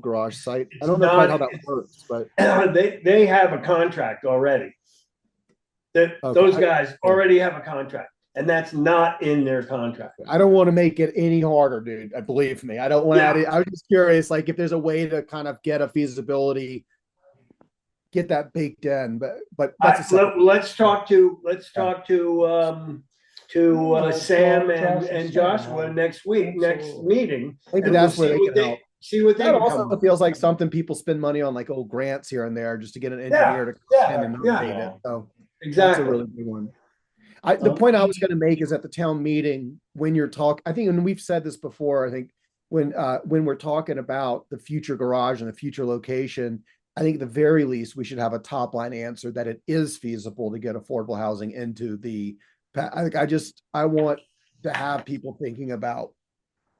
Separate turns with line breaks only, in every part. garage site. I don't know quite how
not-
that works, but
They, they have a contract already. That,
Okay.
those guys already have a contract and that's not in their contract.
I don't want to make it any harder, dude. I believe me. I don't want
Yeah.
to. I was just curious, like if there's a way to kind of get a feasibility, get that baked in. But but that's a
I-
separate-
let- Let's talk to, let's talk to, um, to uh,
Well,
Sam
Josh
and,
and
and
Sam,
Joshua next week, next
absolutely.
meeting.
maybe
and we'll
that's where
see
they
what
can help.
See what they
That
can come
also
up with.
feels like something people spend money on, like old grants here and there, just to get an
Yeah,
engineer to come in
Yeah,
and
yeah,
update it. So that's a
exactly. Oh.
really good one. I, the point I was going to make is at the town meeting when you're talk, I think, and we've said this before. I think when uh, when we're talking about the future garage and the future location, I think at the very least we should have a top line answer that it is feasible to get affordable housing into the. pa- I think I just I want to have people thinking about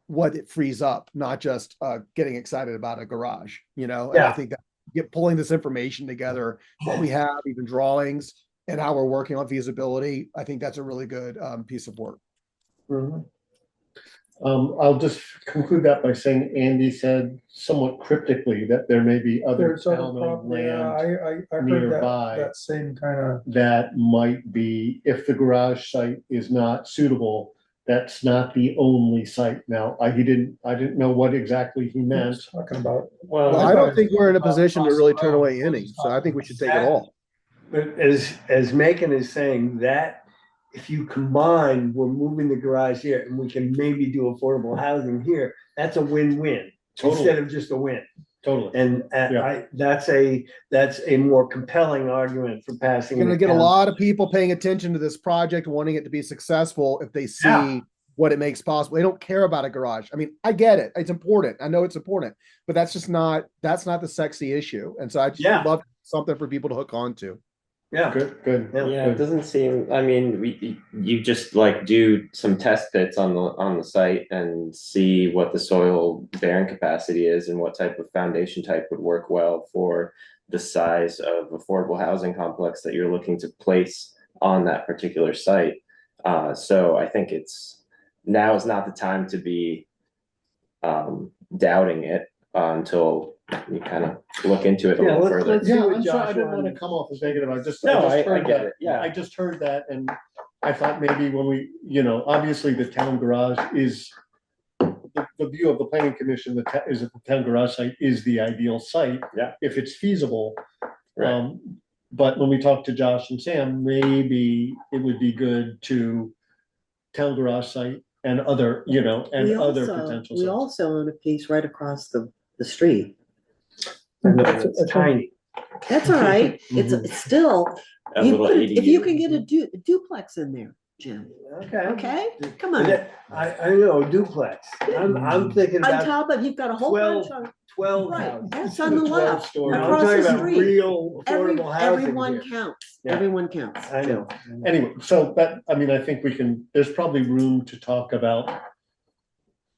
what it frees up, not just uh, getting excited about a garage. You know, and I
Yeah.
think that get pulling this information together what we have, even drawings, and how we're working on feasibility. I think that's a really good um, piece of work.
Mhm. Um, I'll just conclude that by saying Andy said somewhat cryptically that there may be other
There's other
town owned
property, yeah,
land
I, I, I heard
nearby.
that, that same kind
that might be, if the garage site is not suitable, that's not the only site. Now, I, he didn't, I didn't know what exactly he
of,
meant.
talking about.
Well, I
I thought
don't think we're in a position to really turn
possible-
away any, so I think we should take it all.
But as, as Macon is saying, that if you combine, we're moving the garage here and we can maybe do affordable housing here, that's a win-win. Instead
Totally,
of just a win.
totally.
And uh,
Yeah.
I, that's a, that's a more compelling argument for passing.
You're gonna
it
get a
down.
lot of people paying attention to this project, wanting it to be successful if they
Yeah.
see what it makes possible. They don't care about a garage. I mean, I get it. It's important. I know it's important, but that's just not, that's not the sexy issue. And so I just
Yeah.
love something for people to hook on to.
Yeah.
Good, good.
Yeah.
Yeah,
good.
it doesn't seem, I mean, we, you just like do some test pits on the, on the site and see what the soil bearing capacity is and what type of foundation type would work well for the size of affordable housing complex that you're looking to place on that particular site. Uh, so I think it's, now is not the time to be um, doubting it uh, until you kind of look into it a
Yeah,
little
let's-
further.
let's- see
Yeah,
what
I'm sorry, I didn't
Joshua
wanna
and-
come off as negative, I just,
No,
I
I- I
just heard
get
that,
it, yeah.
I just heard that, and I thought maybe when we, you know, obviously the town garage is. The, the view of the planning commission, the, ta- is that the town garage site is the ideal site.
Yeah.
If it's feasible.
Right.
Um, but when we talked to Josh and Sam, maybe it would be good to. Town garage site and other, you know, and
We
other
also-
potential
We
sites.
also own a piece right across the, the street.
It's Tiny.
That's all right. It's,
Mhm.
it's still,
A
you
little
put it- if
ADU.
you can get a du- duplex in there, Jim,
Okay.
okay? Come
And
on.
that- I, I know, duplex. I'm,
Mm.
I'm thinking
On
about
top of, you've got a whole bunch on,
twelve
right,
houses.
that's on the
Twelve
left,
stories.
I'm
across
talking
the
about
street.
real
Every,
affordable housing
everyone
here.
counts,
Yeah.
everyone counts.
I know.
Anyway, so that, I mean, I think we can, there's probably room to talk about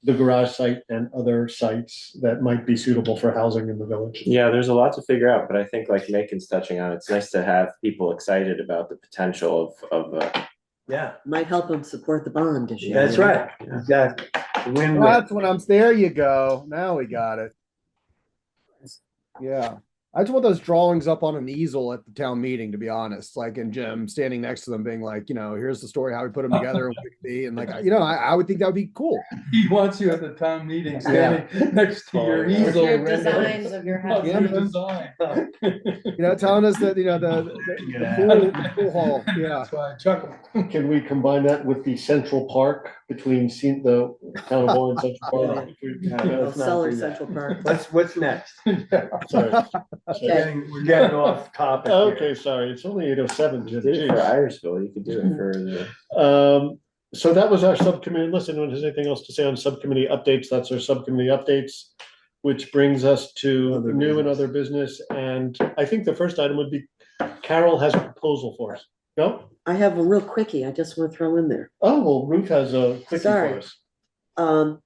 the garage site and other sites that might be suitable for housing in the village.
Yeah, there's a lot to figure out, but I think like Macon's touching on, it's nice to have people excited about the potential of, of, uh,
Yeah,
Might help them support the bond issue.
that's right.
Yeah.
Exactly. Win-win.
That's when I'm, there you go. Now we got it. Yeah. I just want those drawings up on an easel at the town meeting, to be honest, like, and Jim standing next to them being like, you know, here's the story, how we put them together and what it could be. And like, you know, I, I would think that would be cool.
He wants you at the town meeting, standing next to your
Yeah.
easel.
Your
rendering
designs of your
of
house.
your design.
You know, telling us that, you know, the, the- the pool- the pool hall, yeah.
That's why I chuckled.
Can we combine that with the Central Park between Sen- the town of Orange Central Park?
No, let's not
Seller
do that.
Central Park.
What's, what's next?
Sorry.
We're
Sorry.
getting, we're getting off topic here.
Okay, sorry, it's only eight oh seven,
did it for Irishville, you could do it for the.
Um, so that was our subcommittee, unless anyone has anything else to say on subcommittee updates, that's our subcommittee updates. Which brings us to
Other
new and other business, and I think the first item would be Carol has a proposal for us. No?
I have a real quickie I just want to throw in there.
Oh, well, Ruth has a quickie for
Sorry.
us.
Um,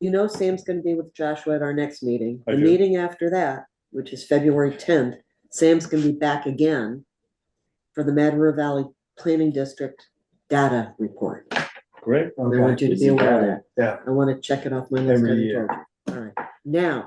you know, Sam's gonna be with Joshua at our next meeting.
I
The
do.
meeting after that, which is February tenth, Sam's gonna be back again for the Mad River Valley Planning District data report. I
Great.
Okay.
want you to be aware of that.
Yeah.
I wanna check it off my list.
Every
I
year.
told you. All right. now.